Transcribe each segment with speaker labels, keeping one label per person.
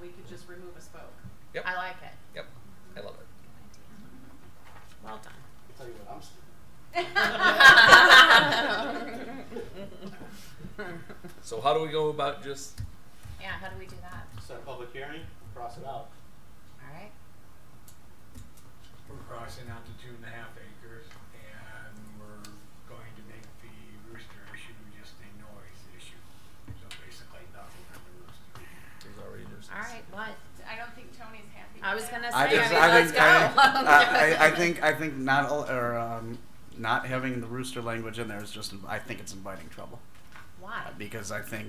Speaker 1: we could just remove a spoke.
Speaker 2: Yep.
Speaker 3: I like it.
Speaker 2: Yep. I love it.
Speaker 3: Well done.
Speaker 4: I'll tell you what, I'm stupid.
Speaker 2: So how do we go about just
Speaker 3: yeah, how do we do that?
Speaker 4: Set a public hearing, cross it out.
Speaker 3: All right.
Speaker 5: We're crossing out to two and a half acres and we're going to make the rooster issue just a noise issue. So basically nothing on the rooster.
Speaker 2: there's already nuisance.
Speaker 3: All right. What?
Speaker 1: I don't think Tony's happy.
Speaker 3: I was gonna say.
Speaker 6: I just,
Speaker 3: mean,
Speaker 6: I
Speaker 3: let's
Speaker 6: think,
Speaker 3: go.
Speaker 6: I, I, I- I think, I think not, al- or, um, not having the rooster language in there is just, I think it's inviting trouble. Uh,
Speaker 3: Why?
Speaker 6: Because I think,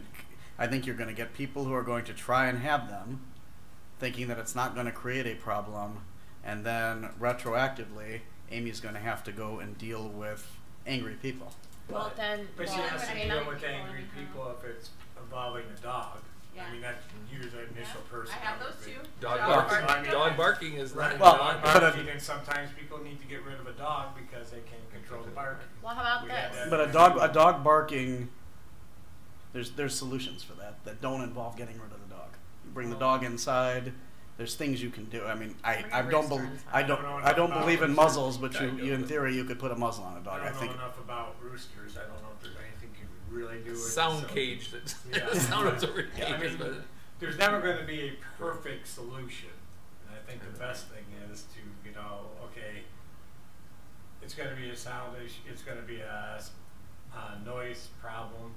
Speaker 6: I think you're gonna get people who are going to try and have them, thinking that it's not gonna create a problem, and then retroactively, Amy's gonna have to go and deal with angry people.
Speaker 3: Well, then.
Speaker 5: But she
Speaker 3: well,
Speaker 5: has to
Speaker 3: I mean, uh,
Speaker 5: deal
Speaker 3: I'm-
Speaker 5: with angry people if it's involving a dog.
Speaker 1: Yeah.
Speaker 5: I mean, that's usually the initial person.
Speaker 1: I have
Speaker 5: that would
Speaker 1: those
Speaker 5: be-
Speaker 1: two.
Speaker 2: Dog
Speaker 5: Dog
Speaker 2: barking.
Speaker 5: barking.
Speaker 2: Dog barking is not
Speaker 5: Right,
Speaker 6: Well,
Speaker 5: dog
Speaker 6: but
Speaker 5: barking,
Speaker 6: a-
Speaker 5: and sometimes people need to get rid of a dog because they can't control the barking.
Speaker 3: Well, how about
Speaker 5: We had
Speaker 3: this?
Speaker 5: that.
Speaker 6: But a dog, a dog barking, there's, there's solutions for that, that don't involve getting rid of the dog. You Bring the dog inside, there's things you can do, I mean, I,
Speaker 3: Bring a
Speaker 6: I don't bel,
Speaker 3: rooster inside.
Speaker 6: I don't, I don't believe in muzzles, but you, you, in theory, you could put a muzzle on a dog,
Speaker 5: I
Speaker 6: I
Speaker 5: don't
Speaker 6: think.
Speaker 5: know enough about roosters. I don't know if there's anything you can really
Speaker 7: uh,
Speaker 5: do. with it,
Speaker 2: Sound
Speaker 5: so-
Speaker 2: cage that
Speaker 5: Yeah.
Speaker 2: the sound absorbing
Speaker 5: I
Speaker 2: cages,
Speaker 5: mean,
Speaker 2: but
Speaker 5: There's never going to be a perfect solution. And I think the best thing is to, you know, okay, it's going to be a sound issue, it's going to be a, s- a noise problem.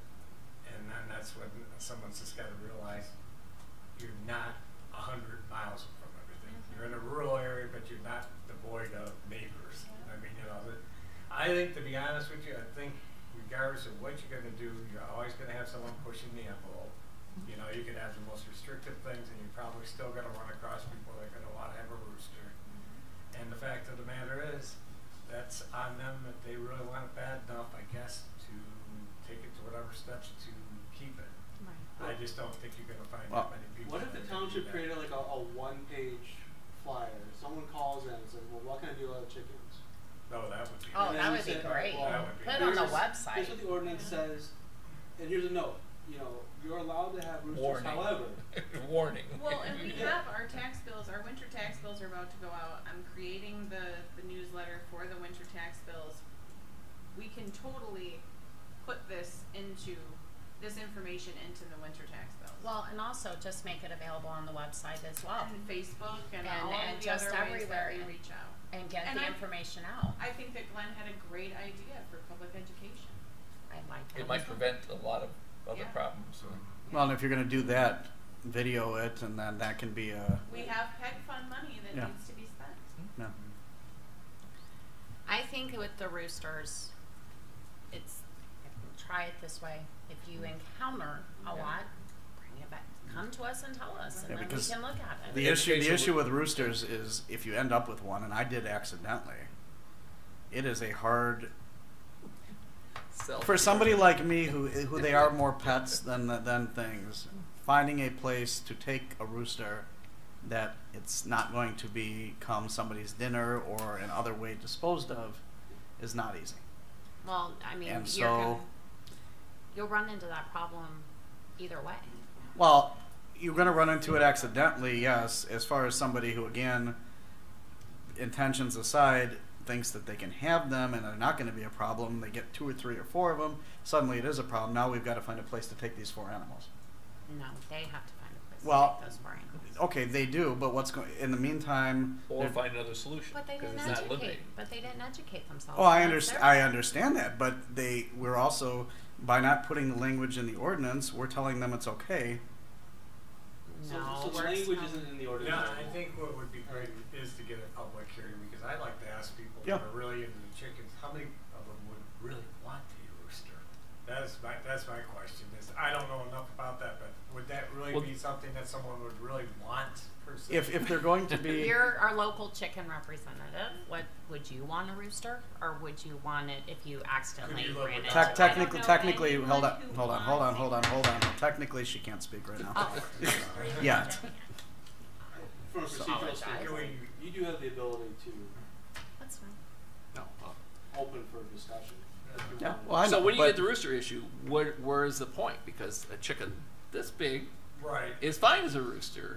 Speaker 5: And then that's when someone's just got to realize you're not 100 miles from everything. You're in a rural area, but you're not devoid of neighbors. I mean, you know, the, I think, to be honest with you, I think regardless of what you're going to do, you're always going to have someone pushing the envelope. You know, you could have the most restrictive things, and you're probably still going to run across people that are going to want to have a rooster. And the fact of the matter is, that's on them if they really want it bad enough, I guess, to take it to whatever steps to keep it. I just don't think you're gonna find
Speaker 6: Well,
Speaker 5: that many people.
Speaker 4: What if the
Speaker 5: that do
Speaker 4: township
Speaker 5: that.
Speaker 4: created like a, a one-page flyer? Someone calls in and says, well, what can I do about chickens?
Speaker 5: No, that would be.
Speaker 3: Oh,
Speaker 4: And
Speaker 3: that
Speaker 4: then you
Speaker 3: would be
Speaker 4: said, all
Speaker 3: great.
Speaker 4: right, well,
Speaker 5: That would be
Speaker 3: Put it on the
Speaker 4: here's-
Speaker 3: website.
Speaker 4: Here's what the ordinance says, and here's a note, you know, you're allowed to have roosters,
Speaker 2: Warning.
Speaker 4: however.
Speaker 2: warning.
Speaker 1: Well, and we have our tax bills, our winter tax bills are about to go out. I'm creating the, the newsletter for the winter tax bills. We can totally put this into, this information into the winter tax bills.
Speaker 3: Well, and also just make it available on the website as well,
Speaker 1: And Facebook and
Speaker 3: And-
Speaker 1: all
Speaker 3: and
Speaker 1: of the
Speaker 3: just
Speaker 1: other ways that
Speaker 3: everywhere.
Speaker 1: we reach out.
Speaker 3: and get
Speaker 1: And
Speaker 3: the
Speaker 1: I-
Speaker 3: information out.
Speaker 1: I think that Glenn had a great idea for public education.
Speaker 3: I like that.
Speaker 2: It might prevent a lot of other
Speaker 1: Yeah.
Speaker 2: problems.
Speaker 7: Mm-hmm.
Speaker 5: So,
Speaker 6: Well, and if you're gonna do that, video it, and then that can be a,
Speaker 1: We have PEG fund money that
Speaker 6: Yeah.
Speaker 1: needs to be spent.
Speaker 6: no.
Speaker 3: I think with the roosters, it's Mm-hmm. try it this way. If you encounter a lot, bring it back. Come to us and tell us, and
Speaker 6: Yeah,
Speaker 3: then we
Speaker 6: because
Speaker 3: can look at it.
Speaker 6: The issue, the
Speaker 2: Education
Speaker 6: issue
Speaker 2: would-
Speaker 6: with roosters is if you end up with one, and I did accidentally, it is a hard
Speaker 2: Self-
Speaker 6: for somebody like me who who they are more pets than than things finding a place to take a rooster that it's not going to become somebody's dinner or in other way disposed of is not easy
Speaker 3: Well, I mean,
Speaker 6: and
Speaker 3: you're gonna,
Speaker 6: so-
Speaker 3: you'll run into that problem either way.
Speaker 6: well you're going to run into it accidentally yes as far as somebody who again intentions aside thinks that they can have them and they're not going to be a problem they get two or three or four of them suddenly it is a problem now we've got to find a place to take these four animals
Speaker 3: No, they have to find a place
Speaker 6: Well,
Speaker 3: to take those four animals.
Speaker 6: Okay, they do, but what's going in the meantime?
Speaker 2: or
Speaker 6: they're-
Speaker 2: find another solution
Speaker 3: But they
Speaker 2: because
Speaker 3: didn't
Speaker 2: it's not
Speaker 3: educate.
Speaker 2: living.
Speaker 3: But they didn't educate themselves.
Speaker 6: oh, I
Speaker 3: That's
Speaker 6: understand.
Speaker 3: their
Speaker 6: I understand that, but they we're also by not putting the language in the ordinance, we're telling them it's okay.
Speaker 3: No,
Speaker 4: So, so the
Speaker 3: we're
Speaker 4: language
Speaker 3: not-
Speaker 4: isn't in the ordinance.
Speaker 5: Yeah, I think what would be great is to get a public hearing, because I'd like to ask people
Speaker 6: Yeah.
Speaker 5: that are really into the chickens, how many of them would really want a rooster? That's my, that's my question, is, I don't know enough about that, but would that really
Speaker 2: Well-
Speaker 5: be something that someone would really want per se?
Speaker 6: If if they're going to be
Speaker 3: You're our local chicken representative. What would you want a rooster, or would you want it if you accidentally
Speaker 5: Could you
Speaker 3: ran
Speaker 5: look
Speaker 3: into
Speaker 5: it
Speaker 6: tec-
Speaker 3: it?
Speaker 5: up?
Speaker 6: technically
Speaker 1: I don't know
Speaker 6: technically
Speaker 1: anyone
Speaker 6: hold on
Speaker 1: who
Speaker 6: hold on hold on
Speaker 1: wants
Speaker 6: hold on hold on. Technically, she can't speak right now.
Speaker 3: Oh.
Speaker 6: Yet.
Speaker 4: From a procedural
Speaker 3: Apologize.
Speaker 5: Can
Speaker 4: standpoint,
Speaker 5: we-
Speaker 4: you do have the ability to
Speaker 3: That's fine.
Speaker 4: open for discussion. if you
Speaker 6: Yeah.
Speaker 4: want.
Speaker 6: Well, I know,
Speaker 7: uh, So when you get
Speaker 6: but-
Speaker 7: the rooster issue, where where is the point? Because a chicken this big
Speaker 5: Right.
Speaker 7: is fine as a rooster.